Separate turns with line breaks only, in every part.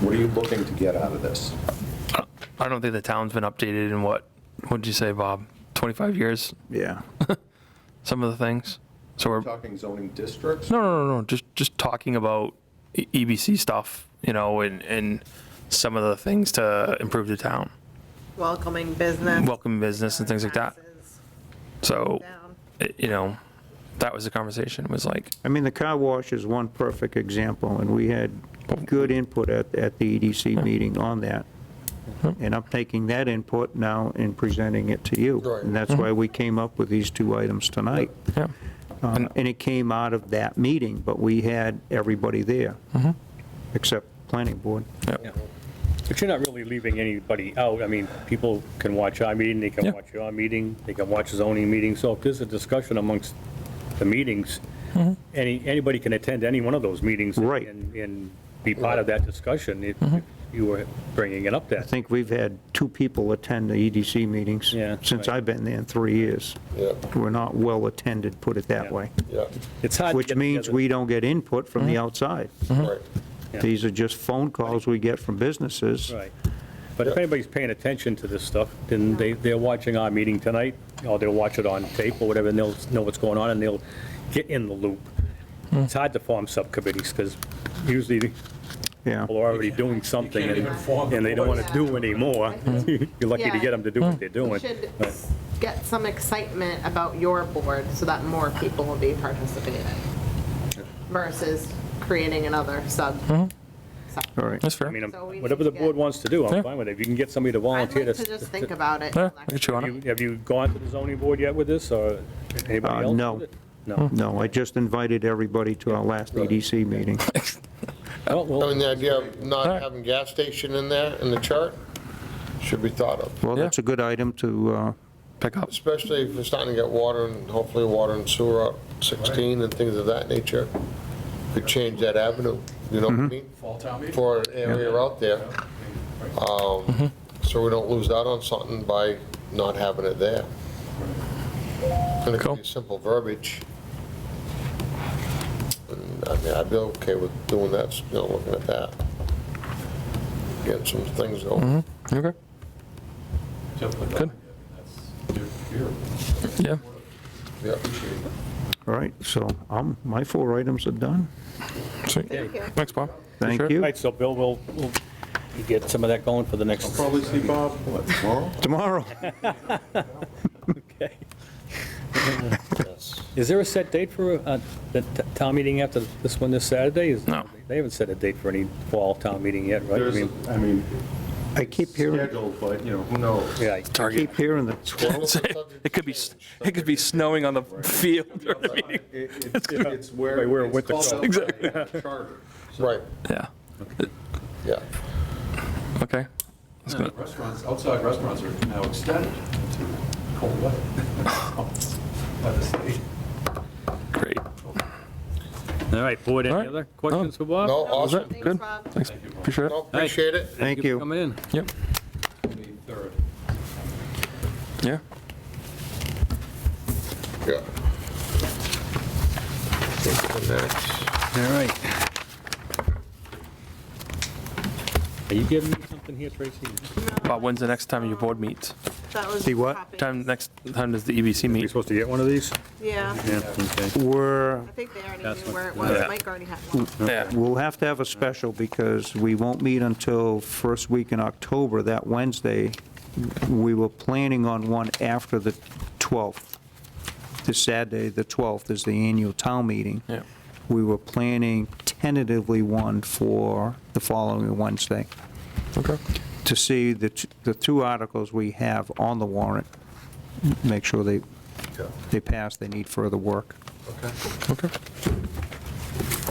What are you looking to get out of this?
I don't think the town's been updated in what, what'd you say, Bob? 25 years,
Yeah.
some of the things? So we're, no,
Talking zoning districts?
no, no, no, just, just talking about E- EBC stuff, you know, and, and some of the things to improve the town.
welcoming business.
Welcome business and things like that.
taxes
So,
down.
it- you know, that was the conversation, was like,
I mean, the car wash is one perfect example, and we had good input at, at the EDC meeting on that. And I'm taking that input now and presenting it to you. And that's why we came up with these two items tonight.
yeah,
Uh, And it came out of that meeting, but we had everybody there, except planning board.
yeah,
But you're not really leaving anybody out. I mean, people can watch our meeting, they
Yeah.
can watch your meeting, they can watch zoning meeting. So if there's a discussion amongst the meetings, any, anybody can attend any one of those meetings.
Mm-hmm. Right. Mm-hmm.
And, and be part of that discussion if if you were bringing it up
I
there.
think we've had two people attend the EDC meetings
Yeah,
since
right.
I've been there in three years.
Yeah,
We're not well-attended, put it that
Yeah.
way,
yeah,
It's hard. to
which
get
means
together. Mm-hmm.
we don't get input from the outside.
right.
Yeah.
These are just phone calls we get from businesses.
Right. But if anybody's paying attention to this stuff, then they, they're watching our meeting tonight, or they'll watch it on tape or whatever, and they'll know what's going on, and they'll get in the loop.
Mm.
It's hard to form subcommittees, because usually the
Yeah,
people are already doing something, and and they don't want to do anymore. You're lucky to get them to do what they're doing.
Hmm. Should
But-
get some excitement about your board so that more people will be participating versus creating another sub.
Mm-hmm.
sub.
all right.
that's
I
fair.
mean, I'm-
So we need
whatever the
to
board
get-
wants to do,
Yeah.
I'm fine with it. If you can get somebody to
I'd
volunteer
like
to...
to just think about it.
Yeah,
till
I get you on
You-
it.
Have you gone to the zoning board yet with this, or
Uh,
anybody else?
no. Hmm.
with it? No.
No, I just invited everybody to our last EDC meeting.
Oh, well,
I mean, the idea of
Alright.
not having gas station in there, in the chart, should be thought of,
Well,
Yeah.
that's a good item to, uh,
Pick up.
especially if it's starting to get water and hopefully water and sewer out 16 and things of that nature. Could change that avenue, you know what I mean? For an area out there. Um, So we don't lose out on something by not having it there. And it
Cool.
could be simple verbiage. And, I mean, I'd be okay with doing that, you know, looking at that. Get some things going.
Okay, Good. yeah, Mm-hmm.
Yeah.
all right, so um, my four items are done.
sweet. Thanks, Bob.
Thank
Sure.
all
you.
right, so Bill, we'll we'll get some of that going for the next...
Probably see Bob, what, tomorrow?
Tomorrow.
Okay. Is there a set date for uh, the t- town meeting after this one this Saturday? Is-
No.
They haven't set a date for any fall town meeting yet, right? I
There's,
mean,
I mean,
I keep hearing,
scheduled, but, you know, who knows?
yeah,
I keep hearing the
Well,
12th.
it's subject
It could be,
to
s-
change.
it could be snowing on the field or
It-
anything.
It's it's where.
Right, where
it's
with the
called
call.
out by
Exactly.
charter.
Right,
Yeah,
yeah.
okay. That's good.
Restaurants, outside restaurants are now extended into cold weather by the state.
Great.
all right, board,
All
any
right.
other questions for Bob?
No, awesome.
it? Good.
Bob.
Thanks, appreciate it.
No, appreciate it.
Thank
for
you.
Coming in.
Yep,
Twenty-third.
yeah.
Yeah. What's the next?
All right. Are you giving me something here, Tracy?
Bob, when's the next time your board meets?
That was
See what?
copies.
Time, next time does the EBC
You
meet?
supposed to get one of these?
Yeah,
Yeah, okay.
We're,
I think they already
That's
knew
what-
where it was.
Yeah.
Mike already had one.
Yeah,
we'll have to have a special because we won't meet until first week in October, that Wednesday. We were planning on one after the 12th. This Saturday, the 12th, is the annual town meeting.
yeah,
We were planning tentatively one for the following Wednesday
okay.
to see the, t- the two articles we have on the warrant, make sure they,
Yeah.
they pass, they need further work.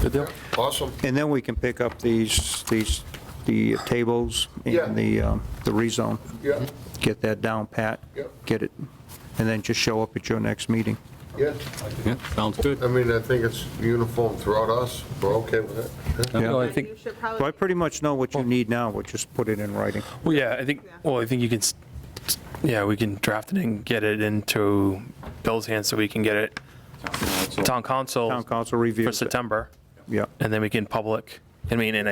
Good deal.
Awesome.
And then we can pick up these, these, the tables
Yeah.
and the, um, the rezone,
Yeah,
get that down pat,
Yep.
get it, and then just show up at your next meeting.
yeah.
Yeah, sounds good.
I mean, I think it's uniform throughout us. We're okay with it. Yeah.
No, I
And you
think,
So
should
I
probably
pretty much know what you need now, we'll just put it in writing.
well, yeah, I think,
Yeah.
well, I think you can, s- s- yeah, we can draft it and get it into Bill's hands so we can get it,
Council.
town council
Town council
for
reviews it.
September,
Yeah.
and then we can public, I mean, and